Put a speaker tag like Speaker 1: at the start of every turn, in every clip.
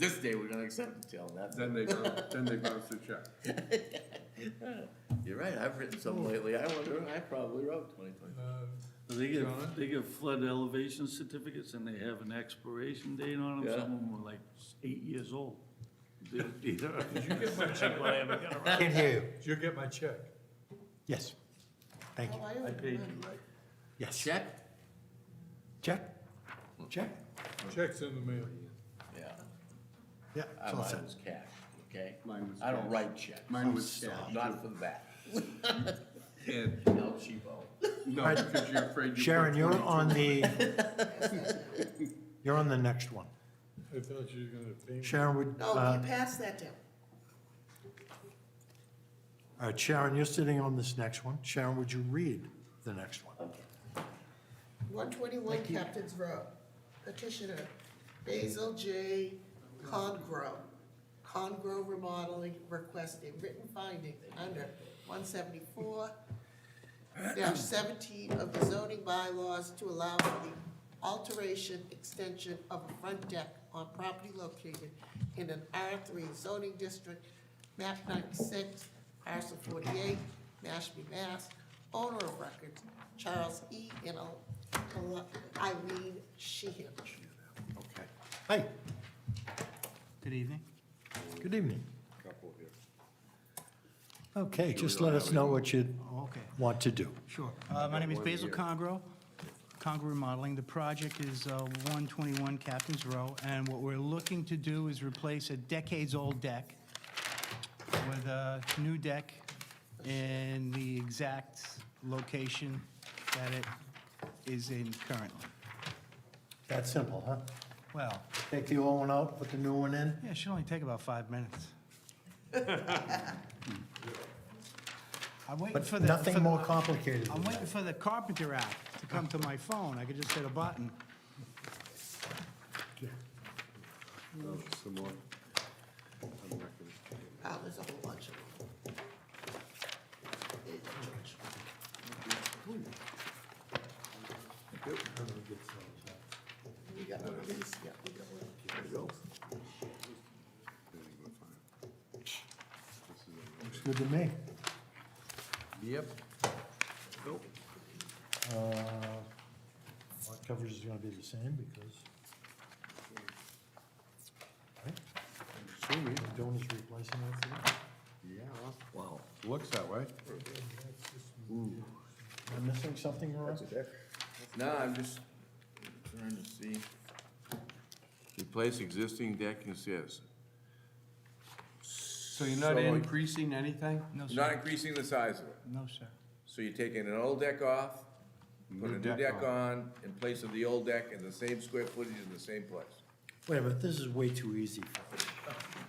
Speaker 1: This day we're gonna accept until that's.
Speaker 2: Then they, bounce- then they bounce the check.
Speaker 1: You're right, I've written some lately, I wonder, I probably wrote twenty twenty.
Speaker 3: They give,
Speaker 2: John?
Speaker 3: they give flood elevation certificates and they have an expiration date on them,
Speaker 1: Yeah.
Speaker 3: some of them were like eight years old. Did you
Speaker 4: Can't hear you.
Speaker 2: Did you get my check?
Speaker 4: Yes. Thank you.
Speaker 3: I paid you, right?
Speaker 4: Yes.
Speaker 1: Check?
Speaker 4: Check? Check?
Speaker 2: Check's in the mail.
Speaker 1: Yeah,
Speaker 4: Yeah,
Speaker 1: I
Speaker 4: it's all
Speaker 1: mine
Speaker 4: set.
Speaker 1: was cash, okay?
Speaker 5: Mine was
Speaker 1: I don't
Speaker 5: cash.
Speaker 1: write checks,
Speaker 5: Mine was staff.
Speaker 1: not for that,
Speaker 2: And,
Speaker 1: El Chivo.
Speaker 2: no,
Speaker 4: Right.
Speaker 2: because you're afraid you. put
Speaker 4: Sharon, you're
Speaker 2: 22
Speaker 4: on the, you're on the next one.
Speaker 2: I thought you were gonna pay me.
Speaker 4: Sharon would,
Speaker 6: No,
Speaker 4: uh,
Speaker 6: you pass that down.
Speaker 4: all right, Sharon, you're sitting on this next one. Sharon, would you read the next one?
Speaker 6: One twenty-one Captain's Road. Petitioner Basil J. Congrove. Congrove Remodeling requesting written finding under one seventy-four seventeen of the zoning bylaws to allow for the alteration, extension of a front deck on property located in an R three zoning district, map ninety-six, parcel forty-eight, Mashpee, Mass. Owner of records, Charles E. and Al- Eileen Sheehan.
Speaker 4: Okay. Hi,
Speaker 5: Good evening.
Speaker 4: good evening.
Speaker 1: Couple here.
Speaker 4: Okay, just let us know what you
Speaker 5: Oh, Okay,
Speaker 4: want to do.
Speaker 5: sure. Uh, My name is Basil Congro, Congro Remodeling. The project is uh, 121 Captain's Row, and what we're looking to do is replace a decades-old deck with a new deck in the exact location that it is in currently.
Speaker 4: That simple, huh?
Speaker 5: Well,
Speaker 4: Take the old one out, put the new one in.
Speaker 5: yeah, it should only take about five minutes. I'm waiting for
Speaker 4: But
Speaker 5: the... for
Speaker 4: nothing
Speaker 5: the-
Speaker 4: more complicated than
Speaker 5: I'm
Speaker 4: that.
Speaker 5: waiting for the Carpenter app to come to my phone. I could just hit a button.
Speaker 2: Oh, Some more. I'm not gonna-
Speaker 6: Wow, there's a whole bunch of them. Hey, George. We got one of these? Yeah, we got one. There you go.
Speaker 4: Looks good to me.
Speaker 1: Yep. Nope.
Speaker 4: Uh, lot coverage is gonna be the same because. Right? Assuming the donor's replacing that thing.
Speaker 2: Yeah,
Speaker 1: Wow.
Speaker 2: looks that way.
Speaker 4: Am I missing something, Rory?
Speaker 1: No, I'm just trying to see.
Speaker 7: Replace existing deck consists.
Speaker 2: So you're not increasing anything?
Speaker 5: No,
Speaker 7: You're not
Speaker 5: sir.
Speaker 7: increasing the size of it.
Speaker 5: No, sir.
Speaker 7: So you're taking an old deck off, putting a new deck on in place of the old deck and the same square footage in the same place.
Speaker 4: Wait a minute, this is way too easy. for me.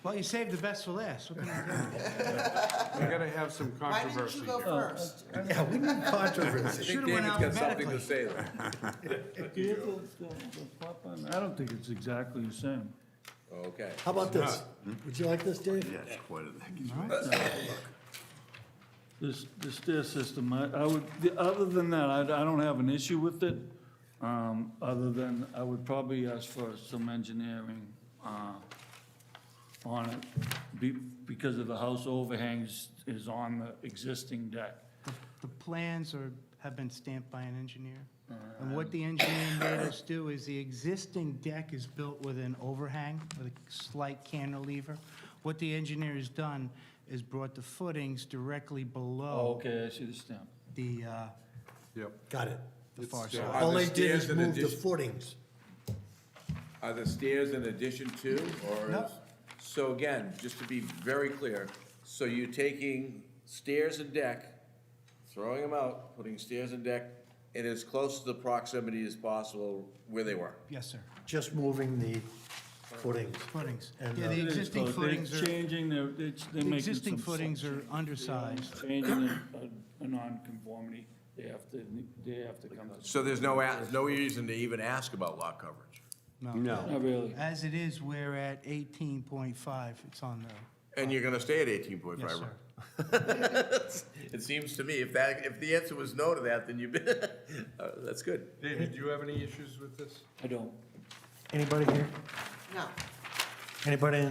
Speaker 5: Well, you saved the best for last. What can I do?
Speaker 2: We're gonna have some
Speaker 6: Why didn't
Speaker 2: controversy
Speaker 6: you
Speaker 2: here.
Speaker 6: go first?
Speaker 4: Yeah, we need
Speaker 7: I
Speaker 4: controversy.
Speaker 7: think
Speaker 5: Should've went
Speaker 7: David's got something to
Speaker 5: alphabetically.
Speaker 7: say there.
Speaker 3: Do you have the- the- the plot plan? I don't think it's exactly the same.
Speaker 7: Okay.
Speaker 4: How about this? Would you like this, Dave?
Speaker 7: That's quite a deck.
Speaker 3: This, this stair system, I, I would, the- other than that, I, I don't have an issue with it. Um, other than I would probably ask for some engineering, uh, on it. Be, because of the house overhangs is on the existing deck.
Speaker 5: The- The plans are, have been stamped by an engineer. And what the engineer made us do is the existing deck is built with an overhang, with a slight cantilever. What the engineer has done is brought the footings directly below
Speaker 3: Oh, Okay, I see the stamp.
Speaker 5: the, uh,
Speaker 2: Yep.
Speaker 4: Got it.
Speaker 5: the far
Speaker 7: still-
Speaker 5: side.
Speaker 7: Are
Speaker 4: All
Speaker 7: the
Speaker 4: they did
Speaker 7: stairs
Speaker 4: is
Speaker 7: in
Speaker 4: move the
Speaker 7: addition-
Speaker 4: footings.
Speaker 7: Are the stairs in addition to, or
Speaker 5: No.
Speaker 7: is? So again, just to be very clear, so you're taking stairs and deck, throwing them out, putting stairs and deck in as close to the proximity as possible where they were.
Speaker 5: Yes, sir.
Speaker 4: Just moving the footings.
Speaker 5: Footings.
Speaker 4: And,
Speaker 5: Yeah,
Speaker 4: uh,
Speaker 5: the
Speaker 3: It is
Speaker 5: existing
Speaker 3: close.
Speaker 5: footings
Speaker 3: They're
Speaker 5: are,
Speaker 3: changing, their- they're, ch- they're
Speaker 5: the
Speaker 3: making
Speaker 5: existing
Speaker 3: some slight
Speaker 5: footings are
Speaker 3: changes.
Speaker 5: undersized.
Speaker 3: Changing uh, a, a non-conformity, they have to, they have to come to.
Speaker 7: So there's no, a- no reason to even ask about lot coverage.
Speaker 3: Not really.
Speaker 5: As it is, we're at 18.5. It's on the,
Speaker 7: And you're gonna stay at eighteen point
Speaker 5: yes,
Speaker 7: five,
Speaker 5: sir.
Speaker 7: It seems to me, if that, if the answer was no to that, then you've been, uh, that's good.
Speaker 2: David, do you have any issues with this?
Speaker 3: I don't.
Speaker 4: Anybody here?
Speaker 6: No,
Speaker 4: Anybody in